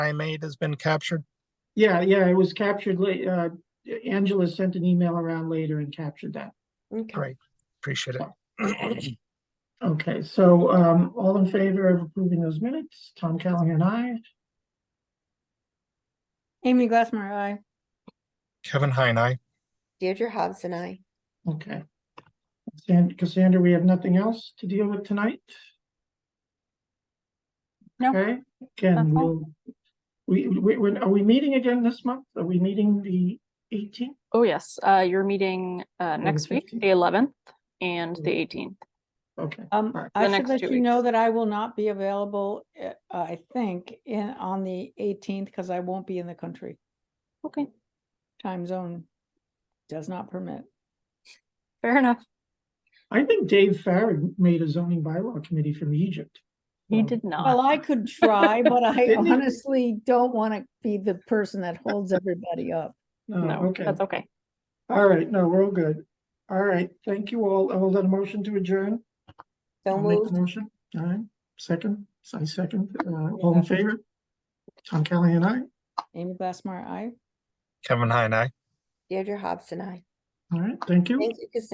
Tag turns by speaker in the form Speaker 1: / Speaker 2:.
Speaker 1: time eight has been captured?
Speaker 2: Yeah, yeah, it was captured late, uh, Angela sent an email around later and captured that.
Speaker 3: Okay,
Speaker 1: Great, appreciate it.
Speaker 2: Okay, so, um, all in favor of approving those minutes? Tom Callahan, aye.
Speaker 4: Amy Glassmeyer, aye.
Speaker 1: Kevin Heine, aye.
Speaker 3: Deirdre Hobbs and I.
Speaker 2: Okay. And Cassandra, we have nothing else to deal with tonight?
Speaker 4: No,
Speaker 2: Okay, again,
Speaker 4: that's all.
Speaker 2: we'll, we, we, we're- are we meeting again this month? Are we meeting the eighteenth?
Speaker 5: Oh, yes, uh, you're meeting, uh,
Speaker 2: the
Speaker 5: next week,
Speaker 2: 15th.
Speaker 5: the eleventh and
Speaker 2: Mm.
Speaker 5: the eighteenth.
Speaker 2: Okay,
Speaker 4: Um,
Speaker 2: Alright.
Speaker 4: I
Speaker 5: The
Speaker 4: should
Speaker 5: next
Speaker 4: let
Speaker 5: two
Speaker 4: you know
Speaker 5: weeks.
Speaker 4: that I will not be available, uh, I think, in, on the eighteenth, because I won't be in the country.
Speaker 5: Okay,
Speaker 4: Time zone does not permit.
Speaker 5: fair enough.
Speaker 2: I think Dave Farag made a zoning bylaw committee from Egypt.
Speaker 5: You
Speaker 2: Um,
Speaker 5: did
Speaker 4: Well,
Speaker 5: not.
Speaker 4: I could try, but I
Speaker 2: Didn't he?
Speaker 4: honestly don't want to be the person that holds everybody up.
Speaker 2: No,
Speaker 5: No,
Speaker 2: Oh, okay,
Speaker 5: that's okay.
Speaker 2: all right, no, we're all good. All right, thank you all. I will let a motion to adjourn.
Speaker 3: So
Speaker 2: I'll make the
Speaker 3: moved.
Speaker 2: Motion, all right, second, I second, uh, all in favor? Tom Callahan, aye.
Speaker 4: Amy Glassmeyer, aye.
Speaker 1: Kevin Heine, aye.
Speaker 3: Deirdre Hobbs and I.
Speaker 2: All right, thank you.
Speaker 3: Thank you, Cassandra.